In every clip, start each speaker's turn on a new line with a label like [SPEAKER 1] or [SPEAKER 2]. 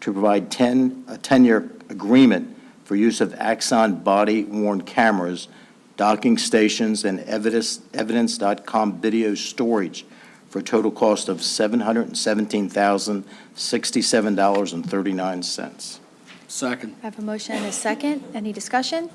[SPEAKER 1] to provide 10, a 10-year agreement for use of Axon body worn cameras, docking stations, and evidence- evidence.com video storage for a total cost of $717,067.39.
[SPEAKER 2] Second.
[SPEAKER 3] I have a motion and a second. Any discussion?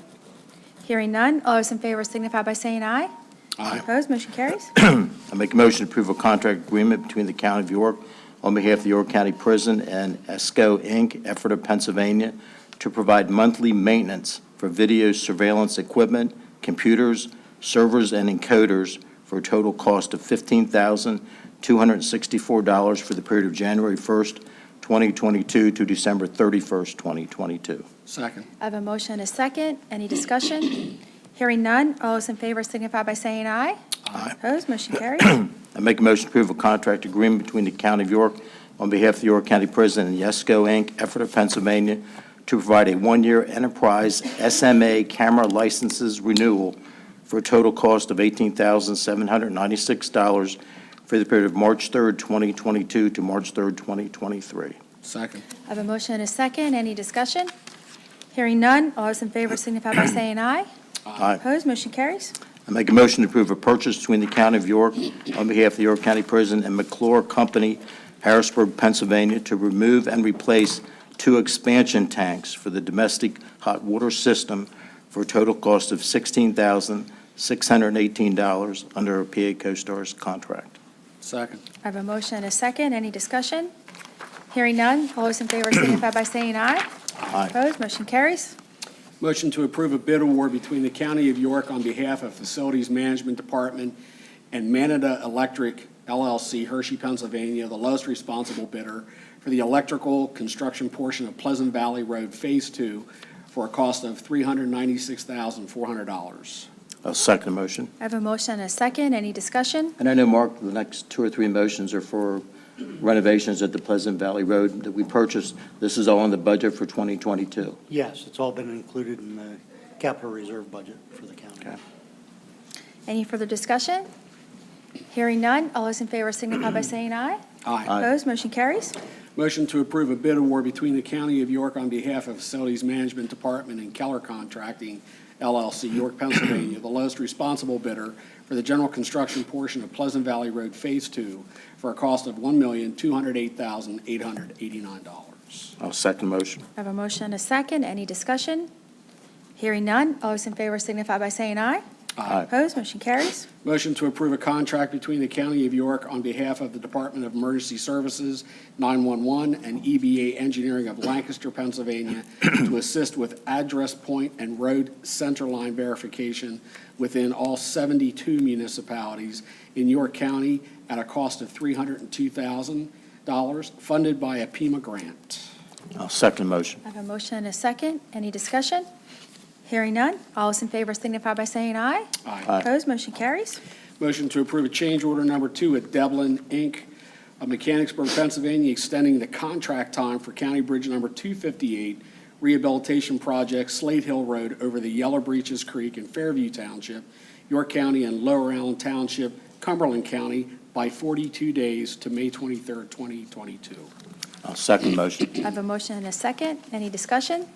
[SPEAKER 3] Hearing none. All those in favor signify by saying aye.
[SPEAKER 2] Aye.
[SPEAKER 3] Opposed, motion carries.
[SPEAKER 1] I make a motion to approve a contract agreement between the County of York on behalf of the York County Prison and ESCO Inc., Effort Pennsylvania, to provide monthly maintenance for video surveillance equipment, computers, servers, and encoders for a total cost of $15,264 for the period of January 1st, 2022 to December 31st, 2022.
[SPEAKER 2] Second.
[SPEAKER 3] I have a motion and a second. Any discussion? Hearing none. All those in favor signify by saying aye.
[SPEAKER 2] Aye.
[SPEAKER 3] Opposed, motion carries.
[SPEAKER 1] I make a motion to approve a contract agreement between the County of York on behalf of the York County Prison and Yesco, Inc., Effort, Pennsylvania, to provide a one-year enterprise SMA camera licenses renewal for a total cost of $18,796 for the period of March 3rd, 2022 to March 3rd, 2023.
[SPEAKER 2] Second.
[SPEAKER 3] I have a motion and a second. Any discussion? Hearing none. All those in favor signify by saying aye.
[SPEAKER 1] Aye.
[SPEAKER 3] Opposed, motion carries.
[SPEAKER 1] I make a motion to approve a purchase between the County of York on behalf of the York County Prison and McClure Company, Harrisburg, Pennsylvania, to remove and replace two expansion tanks for the domestic hot water system for a total cost of $16,618 under a PA CoStar's contract.
[SPEAKER 2] Second.
[SPEAKER 3] I have a motion and a second. Any discussion? Hearing none. All those in favor signify by saying aye.
[SPEAKER 1] Aye.
[SPEAKER 3] Opposed, motion carries.
[SPEAKER 2] Motion to approve a bid award between the County of York on behalf of Facilities Management Department and Manada Electric LLC, Hershey, Pennsylvania, the lowest responsible bidder for the electrical construction portion of Pleasant Valley Road Phase Two for a cost of $396,400.
[SPEAKER 1] I'll second the motion.
[SPEAKER 3] I have a motion and a second. Any discussion?
[SPEAKER 1] And I know, Mark, the next two or three motions are for renovations at the Pleasant Valley Road that we purchased. This is all in the budget for 2022.
[SPEAKER 4] Yes, it's all been included in the capital reserve budget for the county.
[SPEAKER 1] Okay.
[SPEAKER 3] Any further discussion? Hearing none. All those in favor signify by saying aye.
[SPEAKER 2] Aye.
[SPEAKER 1] Aye.
[SPEAKER 3] Opposed, motion carries.
[SPEAKER 2] Motion to approve a bid award between the County of York on behalf of Facilities Management Department and Keller Contracting LLC, York, Pennsylvania, the lowest responsible bidder for the general construction portion of Pleasant Valley Road Phase Two for a cost of $1,208,889.
[SPEAKER 1] I'll second the motion.
[SPEAKER 3] I have a motion and a second. Any discussion? Hearing none. All those in favor signify by saying aye.
[SPEAKER 1] Aye.
[SPEAKER 3] Opposed, motion carries.
[SPEAKER 2] Motion to approve a contract between the County of York on behalf of the Department of Emergency Services, 911, and EBA Engineering of Lancaster, Pennsylvania, to assist with address point and road center line verification within all 72 municipalities in York County at a cost of $302,000, funded by a Pima grant.
[SPEAKER 1] I'll second the motion.
[SPEAKER 3] I have a motion and a second. Any discussion? Hearing none. All those in favor signify by saying aye.
[SPEAKER 1] Aye.
[SPEAKER 3] Opposed, motion carries.
[SPEAKER 2] Motion to approve a change order number two at Devlin, Inc., of Mechanicsburg, Pennsylvania, extending the contract time for County Bridge Number 258 Rehabilitation Project Slate Hill Road over the Yellow Breaches Creek in Fairview Township, York County, and Lower Allen Township, Cumberland County, by 42 days to May 23rd, 2022.
[SPEAKER 1] I'll second the motion.
[SPEAKER 3] I have a motion and a second. Any discussion?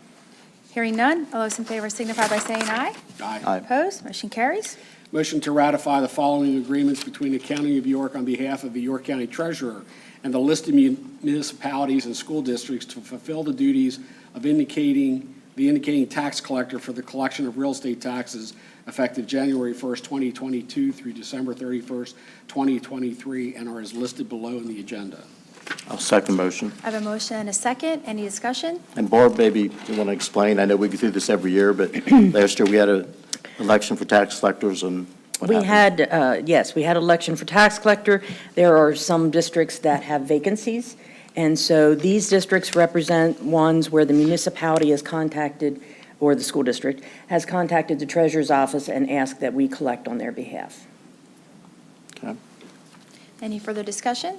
[SPEAKER 3] Hearing none. All those in favor signify by saying aye.
[SPEAKER 1] Aye.
[SPEAKER 3] Opposed, motion carries.
[SPEAKER 2] Motion to ratify the following agreements between the County of York on behalf of the York County Treasurer and the listed mun- municipalities and school districts to fulfill the duties of indicating, the indicating tax collector for the collection of real estate taxes effective January 1st, 2022 through December 31st, 2023, and are as listed below in the agenda.
[SPEAKER 1] I'll second the motion.
[SPEAKER 3] I have a motion and a second. Any discussion?
[SPEAKER 1] And Barb, maybe you want to explain, I know we go through this every year, but last year we had an election for tax collectors and what
[SPEAKER 5] We
[SPEAKER 1] happened?
[SPEAKER 5] had, uh, yes, we had election for tax collector. There are some districts that have vacancies, and so these districts represent ones where the municipality has contacted, or the school district, has contacted the treasurer's office and asked that we collect on their behalf.
[SPEAKER 3] Any further discussion?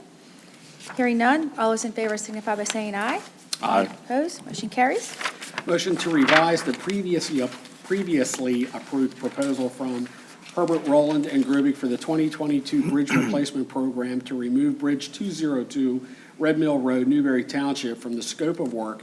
[SPEAKER 3] Hearing none. All those in favor signify by saying aye.
[SPEAKER 1] Aye.
[SPEAKER 3] Opposed, motion carries.
[SPEAKER 2] Motion to revise the previously, previously approved proposal from Herbert Rowland and Grubig for the 2022 Bridge Replacement Program to remove Bridge 202 Red Mill Road, Newberry Township, from the scope of work